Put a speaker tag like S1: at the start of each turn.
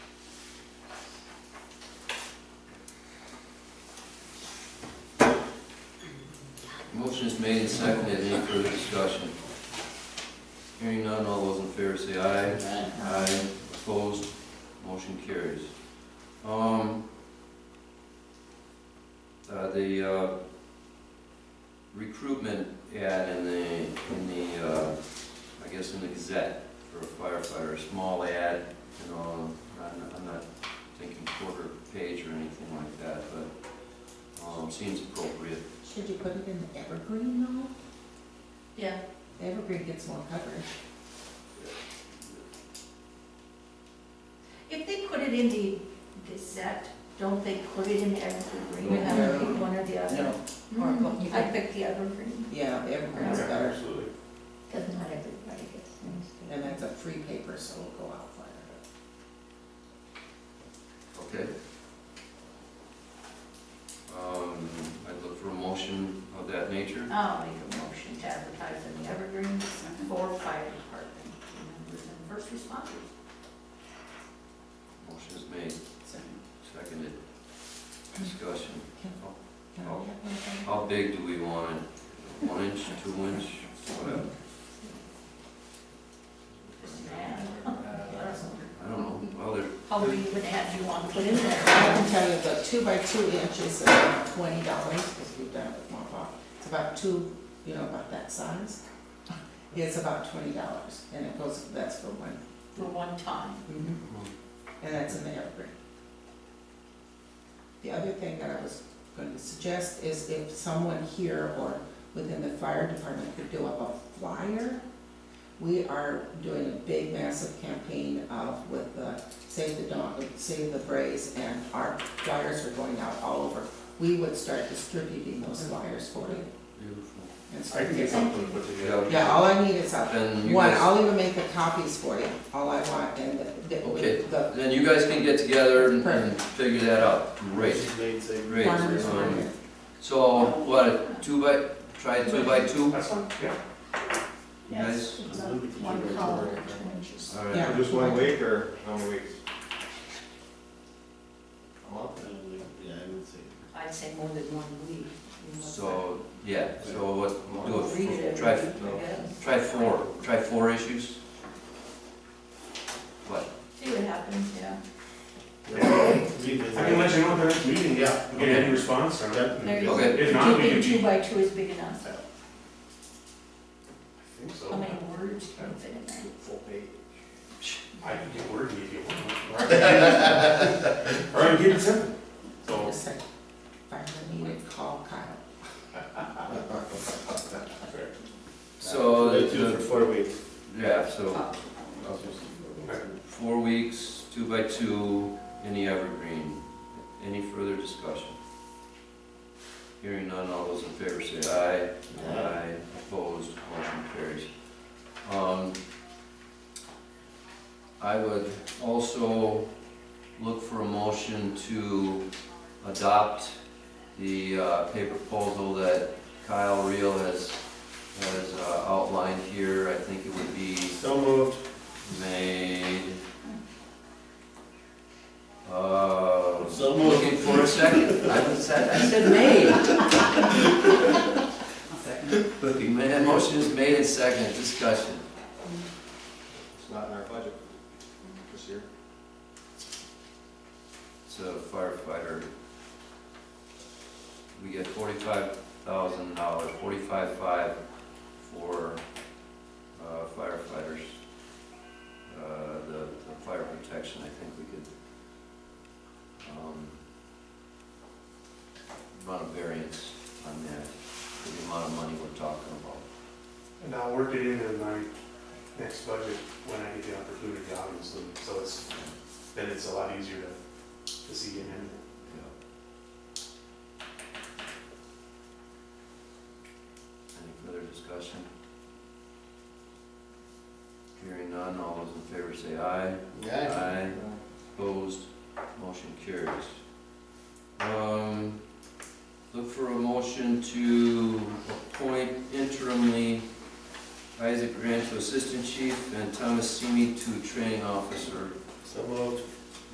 S1: Motion is made and seconded, any further discussion? Hearing none, all those in favor say aye. Aye, opposed, motion carries. Um, uh, the, uh, recruitment ad in the, in the, uh, I guess in the Gazette for a firefighter, a small ad, you know, I'm, I'm not thinking quarter page or anything like that, but, um, seems appropriate.
S2: Should you put it in the evergreen though?
S3: Yeah,
S2: The evergreen gets more coverage.
S3: if they put it in the Gazette, don't they put it in the Evergreen? You have to pick one or the other. Hmm.
S2: Or put- you
S3: I
S2: could-
S3: picked the Evergreen,
S2: Yeah, the evergreen's
S3: Yeah,
S2: better,
S4: Absolutely.
S3: because not everybody gets things.
S2: and that's a free paper, so it'll go out farther.
S1: Okay. Um, I'd look for a motion of that nature.
S3: I'll make a motion to advertise in the Evergreen for fire department members and first responders.
S1: Motion is made,
S2: So,
S1: seconded. Discussion.
S2: Can can I have
S1: Oh.
S2: one thing?
S1: How big do we want it? One inch, two inch, whatever?
S3: Just an ad.
S1: I don't know. Well, there,
S3: How many would have you want to put in
S2: I
S3: there?
S2: can tell you the two by two inches are twenty dollars, because we've done it with Montbach. It's about two, you know, about that size. It's about twenty dollars, and it goes, that's for one.
S3: For one time.
S2: Mhm. And that's in the evergreen. The other thing that I was going to suggest is if someone here or within the fire department could do up a flyer. We are doing a big massive campaign of with the Save the Dawn, Save the Braze, and our flyers are going out all over. We would start distributing those flyers for you
S1: beautiful.
S2: and
S4: I
S2: start
S4: can get
S2: getting.
S4: something put together.
S2: Yeah, all I need is a,
S1: Then you
S2: one,
S1: guys,
S2: I'll even make the copies for you, all I want, and the, the-
S1: Okay.
S2: the
S1: then you guys can get together and- and figure that out. Great,
S4: Made safe.
S1: great.
S2: farmers
S1: Um,
S2: market.
S1: So, Oh, what, a two by, try two by two?
S4: That's fine, yeah.
S1: You guys?
S3: Yes, it's a One color, two inches.
S1: All right.
S2: Yeah.
S5: Uh, Just one week or how many weeks? A month?
S4: Yeah, I would say.
S3: I'd say more than one week.
S1: So, yeah, so what, we'll do
S3: Read
S1: it,
S3: it
S1: try,
S3: every week, I guess.
S1: try four, try four issues? What?
S3: See what happens, yeah.
S4: I can let you know at the next meeting, yeah, get any response on it.
S3: There you go.
S1: Okay.
S4: If
S3: Do
S4: not,
S3: you
S4: we can.
S3: think two by two is big enough?
S4: I think so.
S3: How many words can you fit in there?
S4: Full page. I can get word, maybe one. Or I can get it simple. So,
S2: Just like, if I ever needed, call Kyle.
S1: So,
S5: They do it
S1: the-
S5: for four weeks.
S1: yeah, so
S4: okay.
S1: four weeks, two by two, in the evergreen. Any further discussion? Hearing none, all those in favor say aye.
S5: Aye.
S1: Aye, opposed, motion carries. Um, I would also look for a motion to adopt the uh, pay proposal that Kyle Reel has, has uh, outlined here. I think it would be
S5: So moved.
S1: made. Uh,
S5: So
S1: looking for a second. I said, I said made. Looking, man, motion is made and second, discussion.
S5: It's not in our budget this year.
S1: It's a firefighter. We get forty-five thousand dollars, forty-five five for uh, firefighters. Uh, the, the fire protection, I think we could, um, run a variance on that, for the amount of money we're talking about.
S4: And I'll work it into my next budget when I get the opportunity, obviously, so it's, then it's a lot easier to, to see and handle.
S1: Yeah. Any further discussion? Hearing none, all those in favor say aye. Aye. Opposed, motion carries. Um, look for a motion to appoint interimly Isaac Grant to Assistant Chief and Thomas Simi to Training Officer.
S5: So moved.